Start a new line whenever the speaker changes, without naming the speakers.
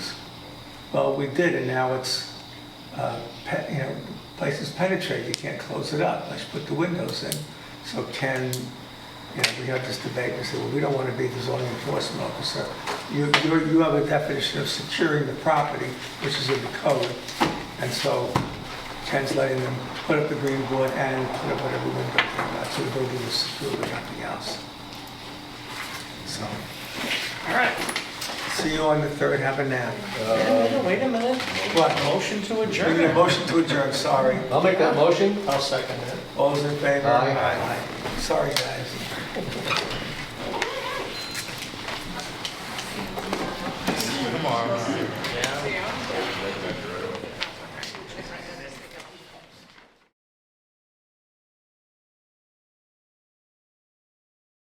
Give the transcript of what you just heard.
Well, we did, and now it's, uh, pe- you know, places penetrate, you can't close it up, let's put the windows in. So can, you know, we have this debate, we say, well, we don't want to be the zoning enforcement officer. You, you you have a definition of securing the property, which is in the code, and so Ken's letting them put up the green board and put up whatever window they want, so the building is secure, but nothing else. So, all right, see you on the third, have a nap.
Wait a minute.
What?
Motion to
We need a
adjourn.
motion to adjourn, sorry.
I'll make that motion.
I'll second it.
All those in favor?
Aye.
Sorry, guys.